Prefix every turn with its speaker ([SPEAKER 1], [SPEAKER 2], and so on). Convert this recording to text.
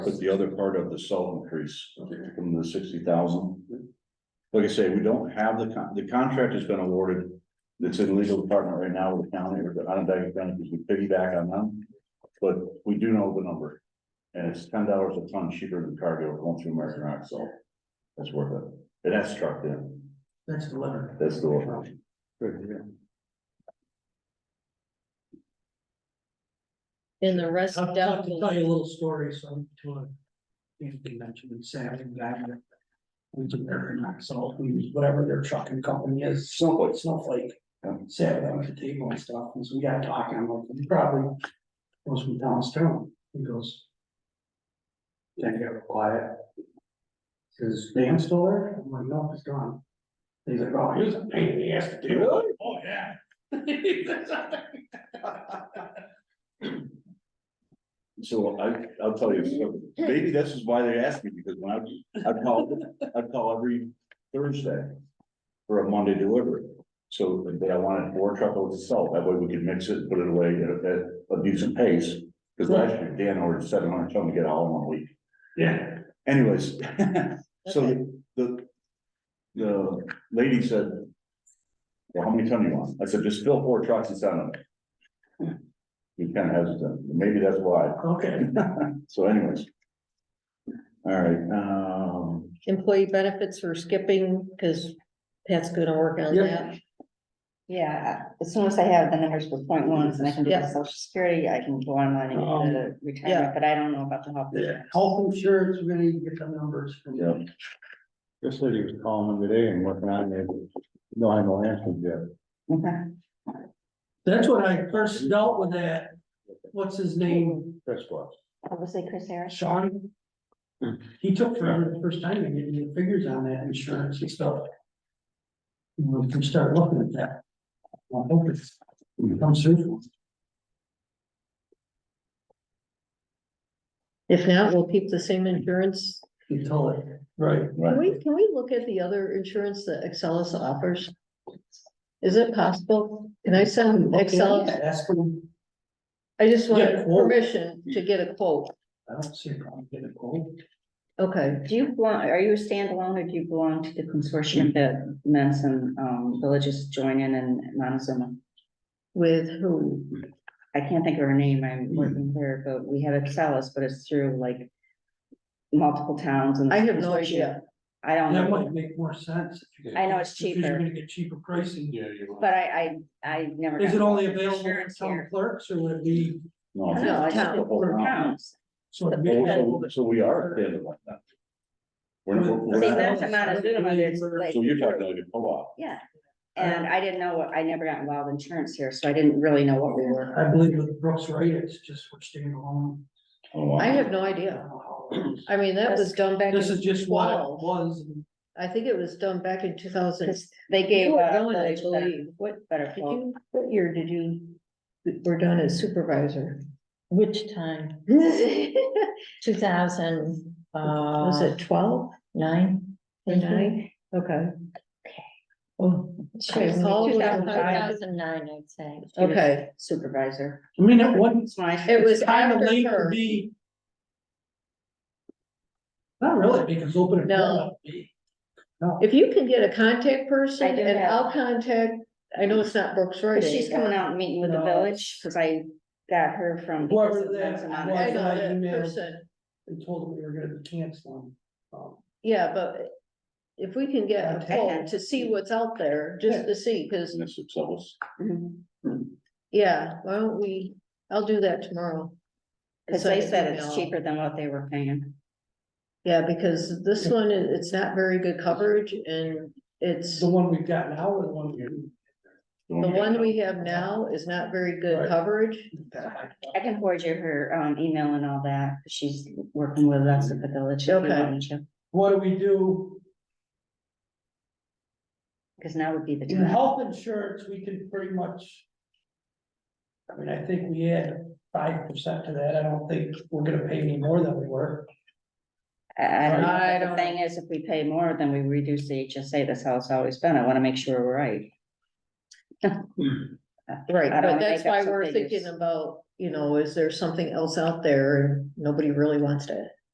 [SPEAKER 1] But the other part of the salt increase from the sixty thousand. Like I say, we don't have the con, the contract has been awarded. It's in legal department right now with the county, or the Onondaga County, because we piggyback on them. But we do know the number. And it's ten dollars a ton cheaper than cargo going through American Rock, so that's worth it. And that's trucked in.
[SPEAKER 2] That's the letter.
[SPEAKER 1] That's the one.
[SPEAKER 3] In the rest
[SPEAKER 2] I'll, I'll tell
[SPEAKER 3] definitely,
[SPEAKER 2] you a little story, so I'm to a Anthony mentioned in Saturday, guy that was American Axle, who's whatever their trucking company is, Snowflake, Snowflake.
[SPEAKER 1] Yeah.
[SPEAKER 2] Saturday, I was at the table and stuff, and so we got talking, I'm like, he probably goes from Downstone, he goes. Then he got quiet. Says, Dan still there? I'm like, no, he's gone. He's like, oh, he was a pain in the ass to deal with. Oh, yeah.
[SPEAKER 1] So I, I'll tell you, so maybe this is why they asked me, because when I, I'd call, I'd call every Thursday. For a Monday delivery, so but I wanted four truckloads of salt, that way we could mix it, and put it away at, at a decent pace. Cause last year Dan ordered seven hundred ton to get all in one week,
[SPEAKER 2] Yeah.
[SPEAKER 1] anyways,
[SPEAKER 3] Okay.
[SPEAKER 1] so the. The lady said. Well, how many ton you want? I said, just fill four trucks and send them. He kind of hesitant, maybe that's why.
[SPEAKER 2] Okay.
[SPEAKER 1] So anyways. All right, um,
[SPEAKER 3] employee benefits are skipping, because Pat's gonna work on
[SPEAKER 2] Yeah.
[SPEAKER 3] that.
[SPEAKER 4] Yeah, as soon as I have the numbers for point ones and I can do
[SPEAKER 3] Yeah. Um,
[SPEAKER 4] the social security, I can go online and do the
[SPEAKER 3] yeah.
[SPEAKER 4] retirement, but I don't know about the health. insurance.
[SPEAKER 2] Health insurance, we're gonna need to get the numbers. from-
[SPEAKER 1] yeah,
[SPEAKER 5] This lady was calling them today and working on it. No, I no answers yet.
[SPEAKER 4] Okay.
[SPEAKER 2] That's when I first dealt with that, what's his name,
[SPEAKER 5] That's what.
[SPEAKER 4] Obviously, Chris Harris.
[SPEAKER 2] Sean? He took forever the first time to get me the figures on that insurance and stuff. You know, if you start looking at that. I hope it's, it comes through.
[SPEAKER 3] If not, we'll keep the same insurance.
[SPEAKER 2] You tell it. Right.
[SPEAKER 3] Can
[SPEAKER 1] right.
[SPEAKER 3] we, can we look at the other insurance that Excellus offers? Is it possible? Can I send Excel?
[SPEAKER 2] That's what, I
[SPEAKER 3] I just
[SPEAKER 2] Yeah,
[SPEAKER 3] want
[SPEAKER 2] quote.
[SPEAKER 3] permission to get a quote.
[SPEAKER 2] don't see a problem getting a quote.
[SPEAKER 3] Okay,
[SPEAKER 4] Do you belong, are you a standalone or do you belong to the
[SPEAKER 3] Mm-hmm.
[SPEAKER 4] consortium that Manson um villages join in in Montezuma?
[SPEAKER 3] with who? Mm-hmm.
[SPEAKER 4] I can't think of her name, I'm working there, but we have Excellus, but it's through like multiple towns and.
[SPEAKER 3] I have no idea.
[SPEAKER 4] I don't
[SPEAKER 2] That
[SPEAKER 4] know,
[SPEAKER 2] might make more sense. if you get-
[SPEAKER 4] I know it's
[SPEAKER 2] Because You're
[SPEAKER 4] cheaper.
[SPEAKER 2] gonna get cheaper pricing.
[SPEAKER 5] Yeah, you
[SPEAKER 4] but I I I never.
[SPEAKER 2] Is
[SPEAKER 4] got
[SPEAKER 2] it only available for
[SPEAKER 4] insurance
[SPEAKER 2] town
[SPEAKER 4] here.
[SPEAKER 2] clerks or would it be?
[SPEAKER 1] No, Oh, it's
[SPEAKER 4] No,
[SPEAKER 1] not
[SPEAKER 4] it's
[SPEAKER 1] the whole
[SPEAKER 4] for
[SPEAKER 1] town.
[SPEAKER 4] towns.
[SPEAKER 2] sort of
[SPEAKER 1] Well,
[SPEAKER 2] mid-level?
[SPEAKER 1] So so we are standalone now. We're, not- we're
[SPEAKER 4] See,
[SPEAKER 1] not-
[SPEAKER 4] that's not as good of it's like.
[SPEAKER 1] so you're talking like a co-op,
[SPEAKER 4] Yeah, and I didn't know what, I never got involved in insurance here, so I didn't really know what we were.
[SPEAKER 2] I believe with Brooks Ray, it's just we're staying alone.
[SPEAKER 1] Oh, wow.
[SPEAKER 3] I have no
[SPEAKER 2] I
[SPEAKER 3] idea.
[SPEAKER 2] don't know how it is.
[SPEAKER 3] I mean, that was done back
[SPEAKER 2] This is
[SPEAKER 3] in
[SPEAKER 2] just what it
[SPEAKER 3] twelve.
[SPEAKER 2] was.
[SPEAKER 3] I think it was done back in two thousand.
[SPEAKER 4] Cause they gave.
[SPEAKER 3] You were
[SPEAKER 4] out
[SPEAKER 3] going, I
[SPEAKER 4] the
[SPEAKER 3] believe.
[SPEAKER 4] better- What better
[SPEAKER 3] Did
[SPEAKER 4] quote?
[SPEAKER 3] you, what year did you, were done as supervisor?
[SPEAKER 6] Which time? Two thousand,
[SPEAKER 3] Was
[SPEAKER 6] uh,
[SPEAKER 3] it twelve
[SPEAKER 6] nine?
[SPEAKER 3] or nine? Okay. Oh, okay, Paul was-
[SPEAKER 6] Two
[SPEAKER 4] 2005.
[SPEAKER 6] thousand nine, I'd say.
[SPEAKER 3] Okay,
[SPEAKER 4] Supervisor.
[SPEAKER 2] I mean, it wasn't
[SPEAKER 4] It's my,
[SPEAKER 3] it was
[SPEAKER 2] kind of
[SPEAKER 3] after
[SPEAKER 2] late to
[SPEAKER 3] her.
[SPEAKER 2] be. Not really, because open.
[SPEAKER 3] No.
[SPEAKER 2] enrollment would be- No.
[SPEAKER 3] If you can get a contact
[SPEAKER 4] I
[SPEAKER 3] person
[SPEAKER 4] do
[SPEAKER 3] and
[SPEAKER 4] have-
[SPEAKER 3] I'll contact, I know it's not Brooks Road.
[SPEAKER 4] but she's
[SPEAKER 3] anymore.
[SPEAKER 4] coming out and meeting with the
[SPEAKER 2] No.
[SPEAKER 4] village, cause I got her from.
[SPEAKER 2] Whoever that
[SPEAKER 3] I
[SPEAKER 2] was.
[SPEAKER 4] Monterey.
[SPEAKER 3] know that
[SPEAKER 2] email.
[SPEAKER 3] person,
[SPEAKER 2] They told them we were gonna be canceling. Um,
[SPEAKER 3] yeah, but if we can get a
[SPEAKER 2] Okay.
[SPEAKER 3] poll to see what's out there, just to see, cause,
[SPEAKER 1] Isn't this success?
[SPEAKER 4] Mhm.
[SPEAKER 3] yeah, why don't we, I'll do that tomorrow.
[SPEAKER 4] Cause
[SPEAKER 3] Send
[SPEAKER 4] they
[SPEAKER 3] an
[SPEAKER 4] said it's
[SPEAKER 3] email.
[SPEAKER 4] cheaper than what they were paying.
[SPEAKER 3] Yeah, because this one, it- it's not very good coverage and it's,
[SPEAKER 2] The one we've got now or the one we.
[SPEAKER 3] the one we have now is not very good
[SPEAKER 2] Right.
[SPEAKER 3] coverage.
[SPEAKER 4] I can forward you her, um, email and all that, she's working with us at the village. if you
[SPEAKER 3] Okay.
[SPEAKER 4] wanted to.
[SPEAKER 2] What do we do?
[SPEAKER 4] Cause now would be the
[SPEAKER 2] In
[SPEAKER 4] time.
[SPEAKER 2] health insurance, we can pretty much. I mean, I think we add five percent to that, I don't think we're gonna pay any more than we were.
[SPEAKER 4] I I don't know,
[SPEAKER 3] I
[SPEAKER 4] but
[SPEAKER 3] don't-
[SPEAKER 4] the thing is, if we pay more, then we reduce the HSA, that's how it's always been, I wanna make sure we're right.
[SPEAKER 3] Right,
[SPEAKER 4] I don't
[SPEAKER 3] but that's
[SPEAKER 4] make up
[SPEAKER 3] why
[SPEAKER 4] some
[SPEAKER 3] we're thinking
[SPEAKER 4] figures.
[SPEAKER 3] about, you know, is there something else out there and nobody really wants to